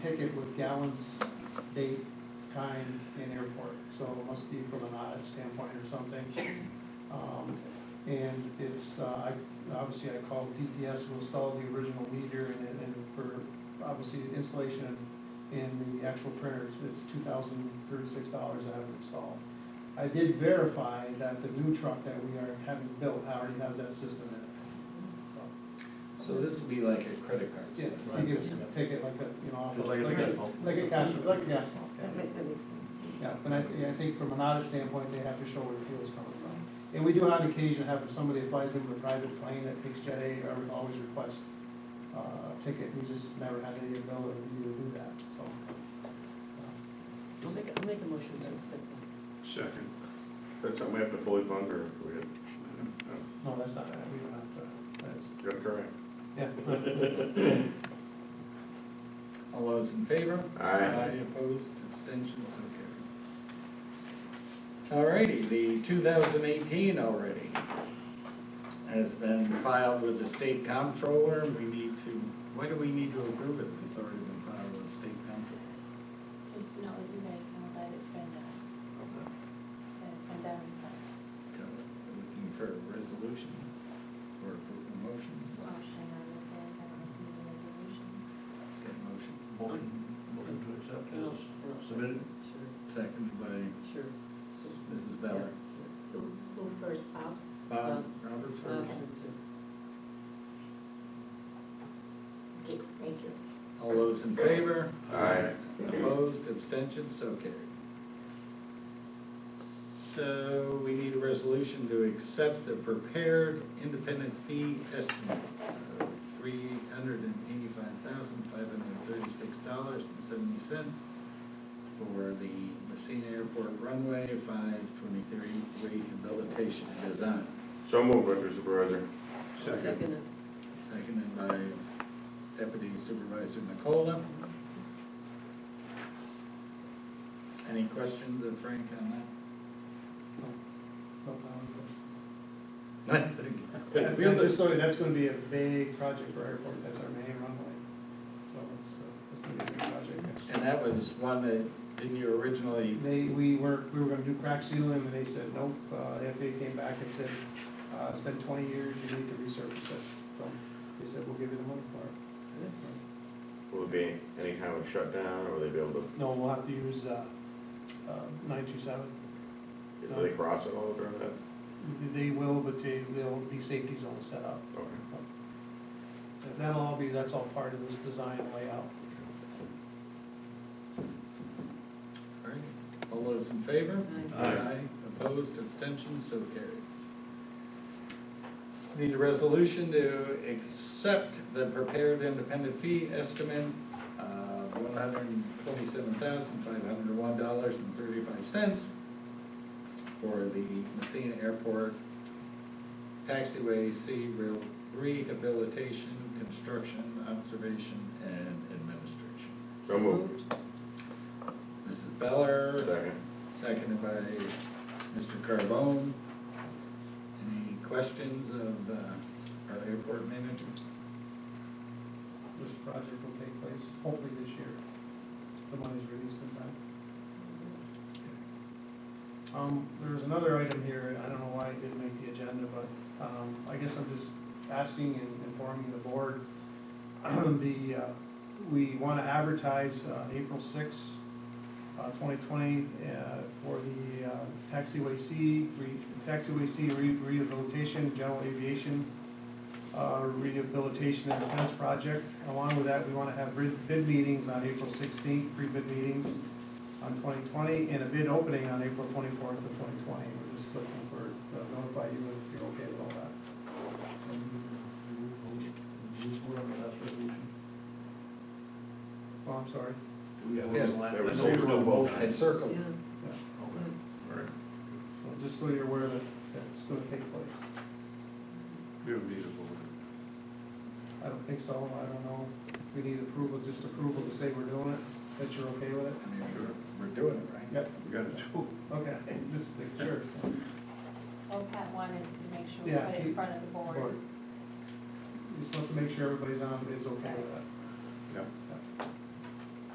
ticket with gallons, date, time, and airport, so it must be from an audit standpoint or something. Um, And it's, uh, I, obviously I called DTS to install the original meter and, and for, obviously, installation in the actual printers, it's two thousand thirty-six dollars I have it installed. I did verify that the new truck that we are having built already has that system in it, So this would be like a credit card. so, yeah, you give us a ticket like a, you know, off. Like a gas pump. Like a cash, like a gas pump, yeah. That ma- that makes sense. Yeah, but I, thi- I think from an audit standpoint, they have to show where the fuel's coming from. And we do on occasion have somebody that flies in with a private plane that takes Jet A, or we always request uh, a ticket, we just never had any ability to do that, so. uh, I'll make, I'll make a motion to accept Second. That's something we have to fully fund or we have, uh, No, that's not, it. we don't have to, that's, got it correct. yeah. All those in favor? Aye. Opposed, abstentions, so carried. Alrighty, the two thousand eighteen already has been filed with the state comptroller, we need to, why do we need to approve it if it's already been filed with the state comptroller? Just to know that you guys know that it's been, uh, that it's been done, so, So, Looking for a resolution or approve a motion, motion on the, I don't know if you need a resolution. Got a motion, Motion, motion to accept it. is submitted. Sure, seconded by sure. So, Mrs. Beller. Who who first, Bob? Bob, Robert's Bob first. and Sue. Okay, thank you. All those in favor? Aye. Opposed, abstentions, so carried. So we need a resolution to accept the prepared independent fee estimate of three hundred and eighty-five thousand, five hundred and thirty-six dollars and seventy cents for the Messina Airport runway five twenty-three rehabilitation design. So moved, Mr. Supervisor. Second. Seconded by Deputy Supervisor Nicola. Any questions of Frank on No problem. that? Yeah, Just so, that's gonna be a big project for our airport, that's our main runway, so it's, uh, it's gonna be a big project next year. And that was one that, didn't you originally, They, we were, we were gonna do crack sealing, and they said, nope, uh, the FAA came back and said, uh, it's been twenty years, you need to resurface it, so, they said, we'll give you the money for it. Will it be any kind of shutdown or will they be able to, No, we'll have to use, uh, uh, nine two seven, do they cross it all during that? they will, but they, there'll be safety zones set up. Okay. That'll all be, that's all part of this design layout. all right, all those in favor? Aye. Aye. Opposed, abstentions, so carried. Need a resolution to accept the prepared independent fee estimate of one hundred and twenty-seven thousand, five hundred and one dollars and thirty-five cents for the Messina Airport taxiway C Re- rehabilitation, construction, observation, and administration. So moved. Mrs. Beller. Second. Seconded by Mr. Carbone. Any questions of uh, our airport manager? This project will take place hopefully this year. The money's released in time. Um, there's another item here, I don't know why it didn't make the agenda, but, um, I guess I'm just asking and informing the board. The, uh, we wanna advertise, uh, April sixth, uh, twenty twenty, uh, for the, uh, taxiway C, re, taxiway C re- rehabilitation, general aviation, uh, rehabilitation and defense project. Along with that, we wanna have bid, bid meetings on April sixteenth, pre-bid meetings on twenty twenty, and a bid opening on April twenty-fourth of twenty twenty. We're just looking for, uh, notify you if you're okay with all that. Oh, I'm sorry. Yes. There was I know we no were on vote. motion. I circled. Yeah. All right. So just so you're aware that that's gonna take place. We don't need a vote. I don't think so, I don't know. We need approval, just approval to say we're doing it, that you're okay with it? I mean, we're, we're doing it right. Yep, We got to do. okay, just make sure. Well, Pat wanted to make sure we Yeah, put it he- in front of the board. You're supposed to make sure everybody's on, is okay with that. Yeah.